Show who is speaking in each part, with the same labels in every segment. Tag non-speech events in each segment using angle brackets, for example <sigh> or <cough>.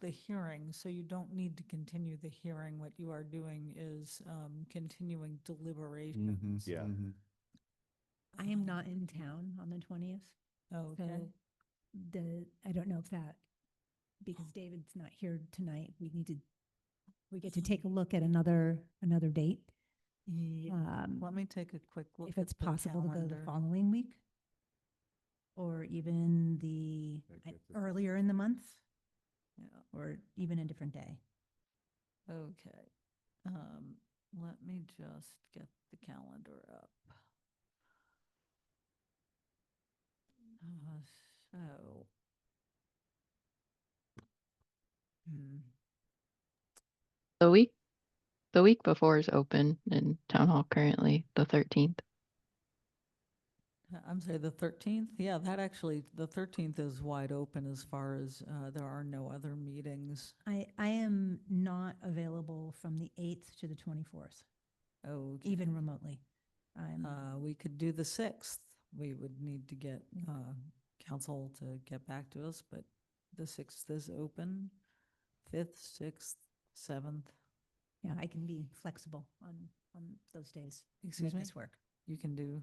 Speaker 1: the hearing, so you don't need to continue the hearing. What you are doing is um, continuing deliberations.
Speaker 2: Yeah.
Speaker 3: I am not in town on the twentieth,
Speaker 1: Oh, Okay,
Speaker 3: so the, I don't know if that, because
Speaker 1: Oh.
Speaker 3: David's not here tonight, we need to, we get to take a look at another, another date.
Speaker 1: Ye-
Speaker 3: um,
Speaker 1: let me take a quick look.
Speaker 3: If it's
Speaker 1: at the
Speaker 3: possible to go the
Speaker 1: calendar.
Speaker 3: following week. Or even the,
Speaker 2: That
Speaker 3: I-
Speaker 2: gets us-
Speaker 3: earlier in the month,
Speaker 1: Yeah,
Speaker 3: or even a different day.
Speaker 1: Okay, um, let me just get the calendar up. Uh, So. Hmm.
Speaker 4: The week, the week before is open in town hall currently, the thirteenth.
Speaker 1: Uh, I'm sorry, the 13th? Yeah, that actually, the 13th is wide open as far as uh, there are no other meetings.
Speaker 3: I, I am not available from the eighth to the twenty-fourth,
Speaker 1: Oh,
Speaker 3: even remotely. I'm,
Speaker 1: Uh, We could do the 6th. We would need to get uh, council to get back to us, but the 6th is open. 5th, 6th, 7th,
Speaker 3: yeah, I can be flexible on, on those days. to
Speaker 1: excuse
Speaker 3: Make
Speaker 1: me,
Speaker 3: this work,
Speaker 1: you can do,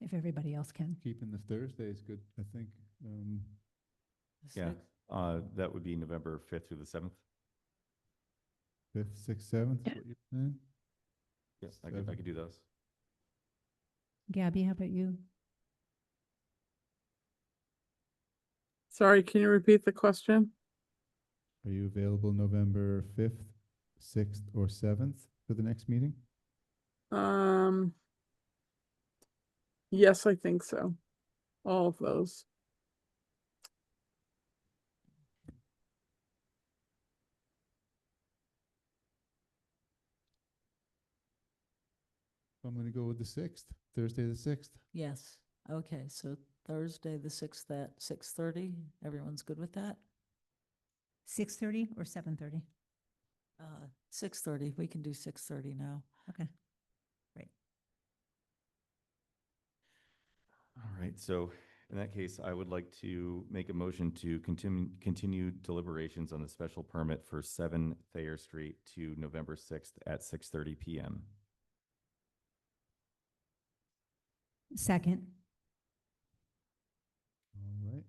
Speaker 3: if everybody else can.
Speaker 5: Keeping the Thursday is good, I think. Um,
Speaker 1: the
Speaker 2: Yeah,
Speaker 1: 6th?
Speaker 2: uh, that would be November fifth through the seventh.
Speaker 5: fifth, sixth, seventh,
Speaker 4: Yeah.
Speaker 5: what you're saying?
Speaker 2: Yes, I could, I could do those.
Speaker 3: Gabby, how about you?
Speaker 6: Sorry, can you repeat the question?
Speaker 5: Are you available November fifth, sixth, or seventh for the next meeting?
Speaker 6: Um, yes, I think so. All of those.
Speaker 5: I'm gonna go with the sixth, Thursday the sixth.
Speaker 1: Yes, okay, so Thursday, the 6th at 6:30, everyone's good with that?
Speaker 3: Six thirty or seven thirty?
Speaker 1: Uh, 6:30, we can do 6:30 now.
Speaker 3: Okay.
Speaker 2: All right, so in that case, I would like to make a motion to continue, continue deliberations on the special permit for seven Thayer Street to November sixth at six thirty PM.
Speaker 3: Second,
Speaker 5: All right.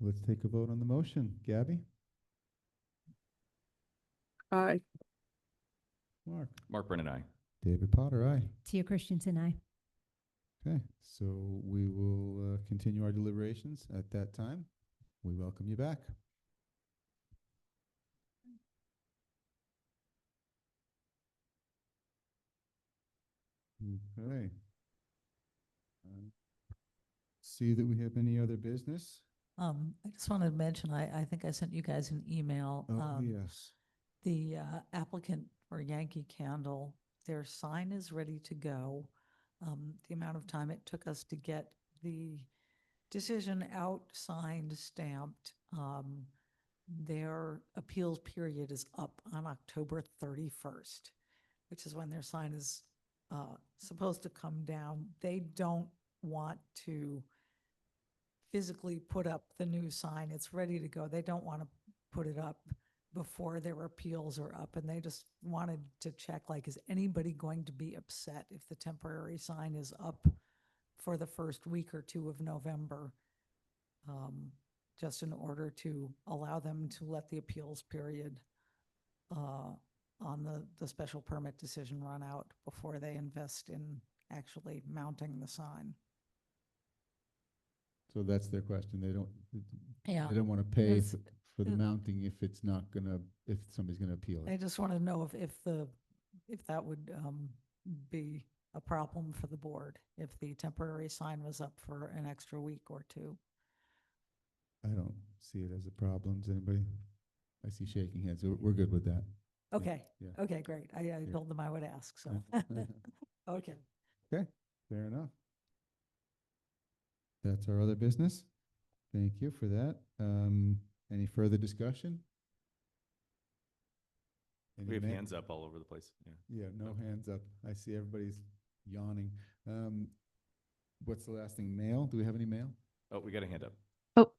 Speaker 5: Let's take a vote on the motion. Gabby?
Speaker 6: Aye.
Speaker 5: Mark?
Speaker 2: Mark Brennan, I.
Speaker 5: David Potter, aye.
Speaker 3: Tia Christensen, I.
Speaker 5: Okay, so we will uh, continue our deliberations at that time. We welcome you back. Okay. Um, See that we have any other business?
Speaker 1: Um, I just wanted to mention, I, I think I sent you guys an email.
Speaker 5: Oh,
Speaker 1: um,
Speaker 5: yes.
Speaker 1: The uh, applicant for Yankee Candle, their sign is ready to go. Um, The amount of time it took us to get the decision out, signed, stamped. um, Their appeals period is up on October 31st, which is when their sign is uh, supposed to come down. They don't want to physically put up the new sign. It's ready to go. They don't want to put it up before their appeals are up and they just wanted to check, like, is anybody going to be upset if the temporary sign is up for the first week or two of November? Um, just in order to allow them to let the appeals period uh, on the, the special permit decision run out before they invest in actually mounting the sign.
Speaker 5: So that's their question. They don't,
Speaker 1: Yeah.
Speaker 5: they don't want to pay
Speaker 1: Oh, Yes.
Speaker 5: for- for the
Speaker 1: Mm.
Speaker 5: mounting if it's not gonna, if somebody's gonna appeal
Speaker 1: I
Speaker 5: it.
Speaker 1: just want to know if, if the, if that would um, be a problem for the board, if the temporary sign was up for an extra week or two.
Speaker 5: I don't see it as a problem. Does anybody? I see shaking heads. We're, we're good with that. Yeah,
Speaker 1: Okay,
Speaker 5: yeah.
Speaker 1: okay, great. I, I
Speaker 5: Yeah. Mm-hmm.
Speaker 1: told them I would ask, so, <laughs> okay.
Speaker 5: <laughs> Fair enough. That's our other business. Thank you for that. Um, any further discussion?
Speaker 2: We
Speaker 5: Any
Speaker 2: have
Speaker 5: ma-
Speaker 2: hands up all over the place. Yeah.
Speaker 5: Yeah, no
Speaker 2: Okay.
Speaker 5: hands up. I see everybody's yawning. Um, what's the last thing? Mail? Do we have any mail?
Speaker 2: Oh, we got a hand up.
Speaker 4: Oh,